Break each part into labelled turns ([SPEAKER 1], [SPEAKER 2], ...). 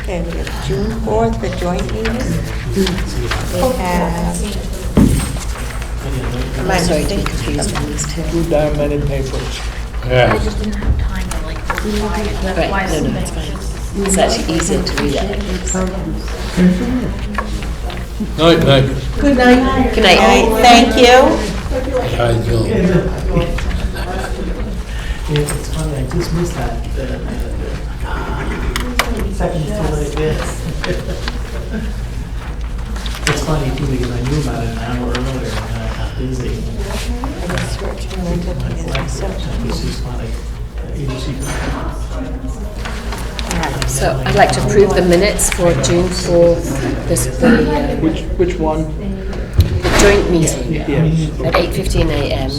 [SPEAKER 1] Okay, we have June 4th, the joint meeting. We have,
[SPEAKER 2] I'm sorry, to be confused on these two.
[SPEAKER 3] Too damn many papers.
[SPEAKER 4] Yeah.
[SPEAKER 5] I just didn't have time to like reply, and that's why I
[SPEAKER 2] Right, no, no, it's fine.
[SPEAKER 5] submitted just
[SPEAKER 2] It's actually easier to read out.
[SPEAKER 4] Night, night.
[SPEAKER 2] Good
[SPEAKER 1] all
[SPEAKER 2] night.
[SPEAKER 1] right, thank you.
[SPEAKER 4] I do.
[SPEAKER 6] Yes, it's funny, I just missed that. uh, Seconds to what it is. It's funny too, because I knew about it an hour earlier, and I got busy. It's just funny. uh, you just-
[SPEAKER 2] So I'd like to approve the minutes for June 4th, this, the uh,
[SPEAKER 3] Which, which one?
[SPEAKER 2] the joint meeting
[SPEAKER 3] Yes.
[SPEAKER 2] at 8:15 a.m.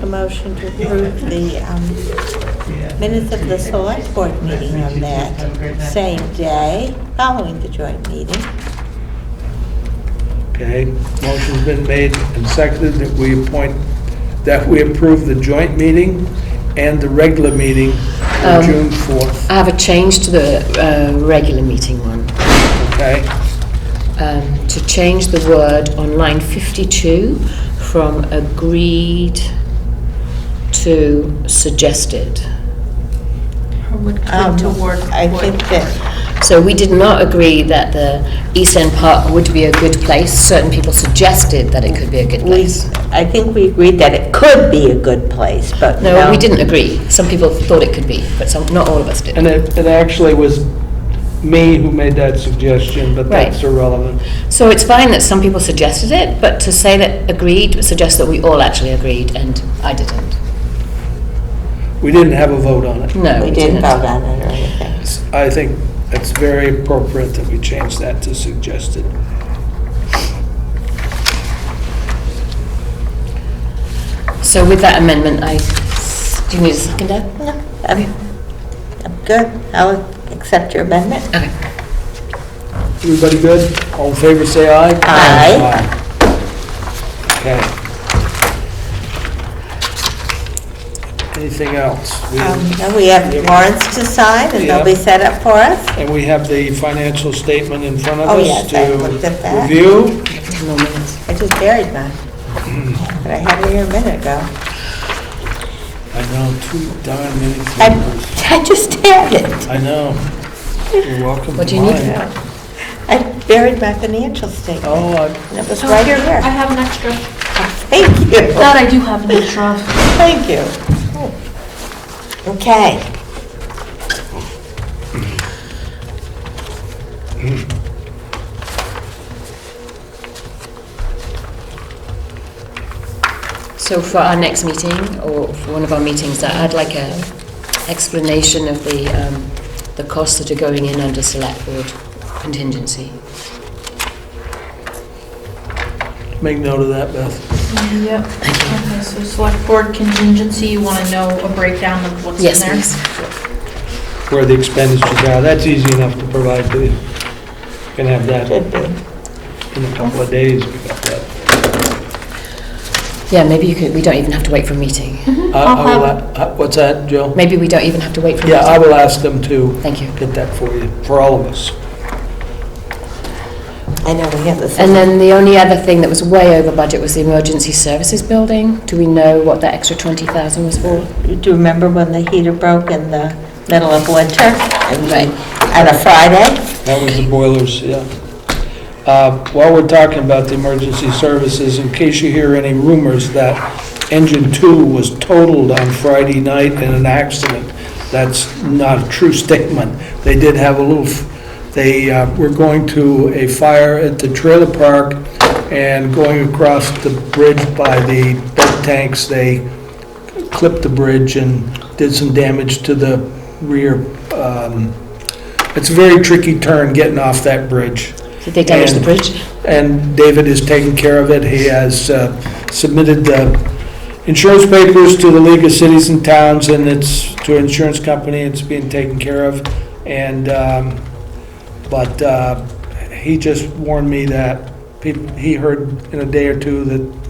[SPEAKER 1] A motion to approve the um, minutes of the select board meeting on that same day, following the joint meeting.
[SPEAKER 3] Okay, motion's been made and seconded that we appoint, that we approve the joint meeting and the regular meeting for
[SPEAKER 2] Um,
[SPEAKER 3] June 4th,
[SPEAKER 2] I have a change to the uh, regular meeting one. uh,
[SPEAKER 3] okay?
[SPEAKER 2] um, to change the word on line 52 from agreed to suggested.
[SPEAKER 5] would
[SPEAKER 1] Um,
[SPEAKER 5] come toward.
[SPEAKER 1] I think that,
[SPEAKER 2] So we did not agree that the East End Park would be a good place. Certain people suggested that it could be a good
[SPEAKER 1] we,
[SPEAKER 2] place.
[SPEAKER 1] I think we agreed that it could be a good place, but no.
[SPEAKER 2] No, we didn't agree. Some people thought it could be, but some, not all of us did.
[SPEAKER 3] And it, it actually was me who made that suggestion, but
[SPEAKER 2] Right.
[SPEAKER 3] that's irrelevant.
[SPEAKER 2] So it's fine that some people suggested it, but to say that agreed suggests that we all actually agreed, and I didn't.
[SPEAKER 3] We didn't have a vote on it.
[SPEAKER 2] No,
[SPEAKER 1] We
[SPEAKER 2] we
[SPEAKER 1] didn't
[SPEAKER 2] didn't.
[SPEAKER 1] vote on it or anything.
[SPEAKER 3] I think it's very appropriate that we change that to suggested.
[SPEAKER 2] So with that amendment, I, do you need a second, Deb?
[SPEAKER 1] No, I'm, I'm good. I'll accept your amendment.
[SPEAKER 2] Okay.
[SPEAKER 3] Everybody good? All in favor, say aye.
[SPEAKER 1] Aye.
[SPEAKER 3] Aye. Okay. Anything else? We-
[SPEAKER 1] Um, now We have warrants to sign, and they'll be set up for us.
[SPEAKER 3] And we have the financial statement in front of
[SPEAKER 1] Oh,
[SPEAKER 3] us
[SPEAKER 1] yes, I looked at
[SPEAKER 3] to
[SPEAKER 1] that.
[SPEAKER 3] review.
[SPEAKER 1] I just buried mine, but I had it here a minute ago.
[SPEAKER 3] I know, too darn many
[SPEAKER 1] I,
[SPEAKER 3] papers.
[SPEAKER 1] I just had it.
[SPEAKER 3] I know. You're welcome.
[SPEAKER 2] What
[SPEAKER 3] to
[SPEAKER 2] do you need?
[SPEAKER 3] mine.
[SPEAKER 1] I buried my financial statement,
[SPEAKER 3] Oh, I-
[SPEAKER 1] and it was right here.
[SPEAKER 5] I have an extra.
[SPEAKER 1] Thank you,
[SPEAKER 5] That I do have an extra.
[SPEAKER 1] thank you. Okay.
[SPEAKER 2] So for our next meeting, or for one of our meetings, I- I'd like a explanation of the, um, the costs that are going in under select board contingency.
[SPEAKER 3] make note of that, Beth.
[SPEAKER 5] Yep. Okay, so select board contingency, you want to know a breakdown of what's in there?
[SPEAKER 2] Yes, please.
[SPEAKER 3] Where the expenditures are, that's easy enough to provide to you. Can have that
[SPEAKER 1] Should be.
[SPEAKER 3] in a couple of days. We got that.
[SPEAKER 2] Yeah, maybe you could, we don't even have to wait for a meeting.
[SPEAKER 3] I- I will a- uh, What's that, Jill?
[SPEAKER 2] Maybe we don't even have to wait for a
[SPEAKER 3] Yeah,
[SPEAKER 2] meeting.
[SPEAKER 3] I will ask them to
[SPEAKER 2] Thank you.
[SPEAKER 3] get that for you, for all of us.
[SPEAKER 1] I know we have this.
[SPEAKER 2] And then the only other thing that was way over budget was the emergency services building. Do we know what that extra 20,000 was for?
[SPEAKER 1] Do you remember when the heater broke in the middle of winter? And
[SPEAKER 2] Right.
[SPEAKER 1] we- On a Friday?
[SPEAKER 3] That was the boilers, yeah. Uh, While we're talking about the emergency services, in case you hear any rumors that engine two was totaled on Friday night in an accident, that's not a true statement. They did have a little, f- they uh, were going to a fire at the trailer park and going across the bridge by the bed tanks, they clipped the bridge and did some damage to the rear um, it's a very tricky turn getting off that bridge,
[SPEAKER 2] Did they damage the
[SPEAKER 3] And-
[SPEAKER 2] bridge?
[SPEAKER 3] and David is taking care of it. He has uh, submitted the insurance papers to the League of Cities and Towns, and it's to an insurance company, it's being taken care of. And, um, but uh, he just warned me that peop- he heard in a day or two that